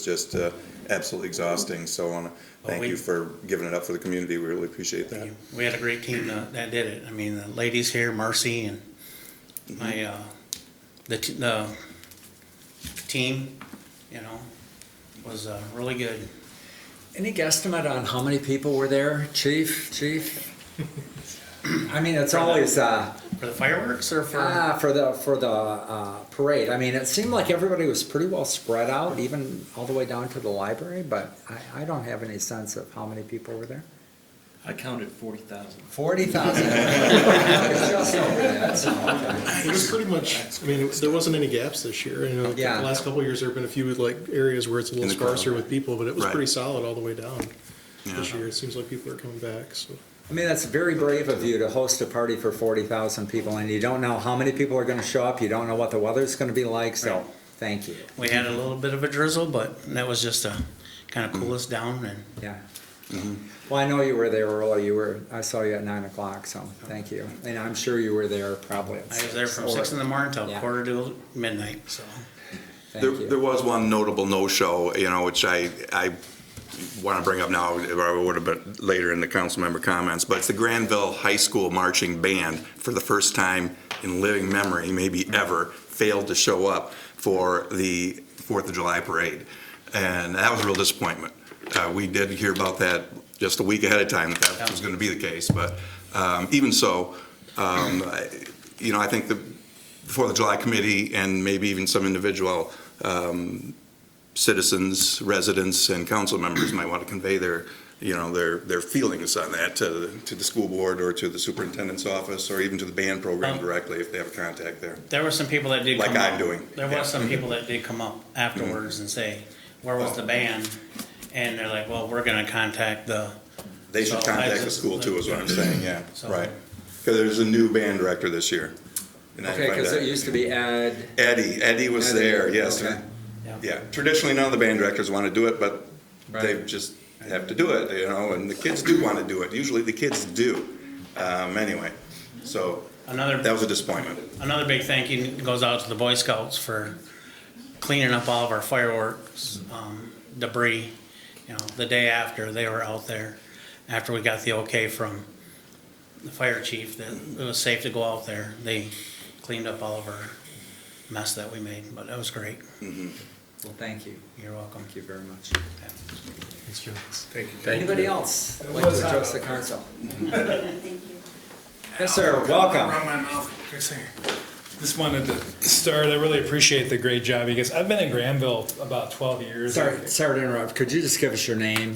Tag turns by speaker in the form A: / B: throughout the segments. A: just uh, absolutely exhausting, so I wanna thank
B: we-
A: you for giving it up for the community, we really appreciate that.
B: We had a great team that, that did it. I mean, the ladies here, Mercy and my,
A: Mm-hmm.
B: uh, the, t- the team, you know, was, uh, really good.
C: Any guesstimate on how many people were there, chief, chief? I mean, it's always, uh,
B: For the fireworks or for,
C: ah, for the, for the, uh, parade, I mean, it seemed like everybody was pretty well spread out, even all the way down to the library, but I, I don't have any sense of how many people were there.
D: I counted forty thousand.
C: Forty thousand.
E: It was pretty much, I mean, it- there wasn't any gaps this year. You know, the
C: Yeah.
E: last couple of years, there've been a few like areas where it's a little
A: In the crowd.
E: sparser with people, but it was
A: Right.
E: pretty solid all the way down. This
A: Yeah.
E: year, it seems like people are coming back, so.
C: I mean, that's very brave of you to host a party for forty thousand people, and you don't know how many people are gonna show up, you don't know what the weather's gonna be like, so, thank you,
B: we had a little bit of a drizzle, but that was just to kind of cool us down and
C: yeah. Well, I know you were there early, you were, I saw you at nine o'clock, so, thank you, and I'm sure you were there probably.
B: I was there from six in the morning till
C: Yeah.
B: quarter to midnight, so.
C: Thank
A: There, there
C: you,
A: was one notable no-show, you know, which I, I want to bring up now, or it would have been later in the council member comments, but it's the Granville High School Marching Band, for the first time in living memory, maybe ever, failed to show up for the Fourth of July parade. And that was a real disappointment. Uh, we did hear about that just a week ahead of time, that that was going to be the case, but, um, even so, um, I- you know, I think the, Fourth of July committee and maybe even some individual um, citizens, residents, and council members might want to convey their, you know, their, their feelings on that to, to the school board or to the superintendent's office or even to the band
B: Um,
A: program directly if they have a contact there.
B: There were some people that did
A: Like
B: come up.
A: I'm doing,
B: There
A: yeah. Mm-hmm.
B: was some people that did come up afterwards and say, where was
A: Oh.
B: the band? And they're like, well, we're gonna contact the,
A: They should
B: So I
A: contact the
B: just-
A: school too, is what I'm saying, yeah,
B: So-
A: right. Because there's a new band director this year. and I
C: okay,
A: find
C: cause
A: that-
C: it used to be Ed.
A: Eddie, Eddie was
C: Eddie,
A: there, yes.
C: okay.
A: Yeah, traditionally, none of the band directors want to do it, but they
C: Right.
A: just have to do it, you know, and the kids do want to do it. Usually the kids do. Um, anyway, so
B: another
A: that was a disappointment.
B: Another big thank you goes out to the Boy Scouts for cleaning up all of our fireworks um, debris. You know, the day after, they were out there, after we got the okay from the fire chief that it was safe to go out there. They cleaned up all of our mess that we made, but that was great.
C: Well, thank you,
B: You're welcome.
C: thank you very much.
E: Thank you.
C: Anybody else like
F: uh,
C: to address the council? Yes, sir, welcome.
F: Run my mouth. Good singer. Just wanted to start. I really appreciate the great job you guys. I've been in Granville about 12 years.
C: Sorry, sorry to interrupt, could you just give us your name?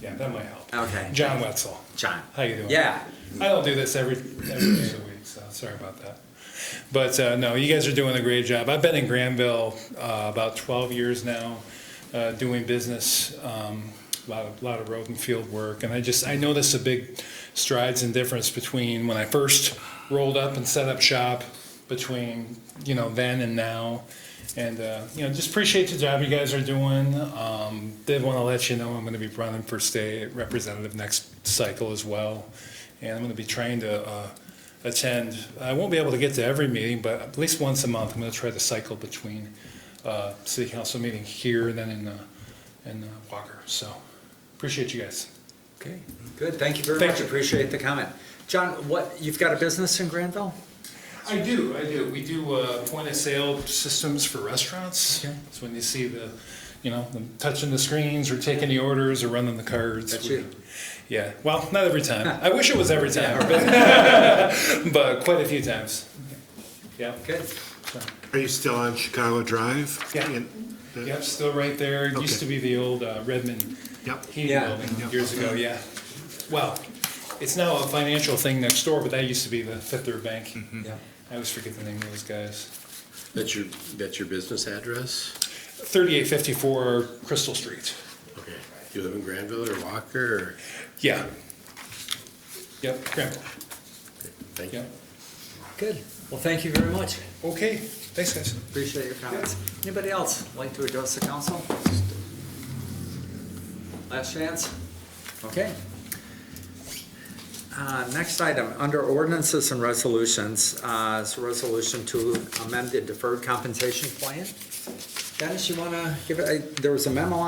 F: Yeah, that might help.
C: Okay.
F: John Wetzel.
C: John.
F: How you doing?
C: Yeah,
F: I don't do this every every day of the week, so sorry about that. But uh, no, you guys are doing a great job. I've been in Granville uh, about 12 years now, uh, doing business, um, a lot of lot of road and field work, and I just I noticed a big strides and difference between when I first rolled up and set up shop, between you know then and now. And uh, you know, just appreciate the job you guys are doing. Um, did want to let you know I'm going to be running for state representative next cycle as well, and I'm going to be trying to uh, attend. I won't be able to get to every meeting, but at least once a month, I'm going to try to cycle between uh, city council meeting here and then in uh, in uh, Walker. So appreciate you guys.
C: okay, good, thank you very
F: Thank
C: much,
F: you.
C: appreciate the comment. John, what, you've got a business in Granville?
F: I do, I do. We do uh, point of sale systems for restaurants.
C: Okay.
F: It's when you see the, you know, them touching the screens or taking the orders or running the cards.
C: That's you.
F: Yeah, well, not every time. I wish it was every time, but, but quite a few times. Yeah.
C: Good.
G: Are you still on Chicago Drive?
F: Yeah.
G: In-
F: Yep, still right there. It used to be the old uh, Redmond
G: Yep.
F: heating
C: Yeah.
F: building years ago, yeah. Well, it's now a financial thing next door, but that used to be the Fifth Third Bank.
G: Mm-hmm.
C: Yeah.
F: I always forget the name of those guys.
D: That's your, that's your business address?
F: 3854 Crystal Street.
D: Okay. You live in Granville or Walker or?
F: Yeah. Yep, Granville,
D: Thank you.
F: yeah.
C: Good, well, thank you very much,
F: Okay, thanks, guys.
C: appreciate your comments. Anybody else like to address the council? Last chance? Okay. Uh, Next item, under ordinances and resolutions, uh, is a resolution to amend the deferred compensation plan. Dennis, you wanna give it, I- there was a memo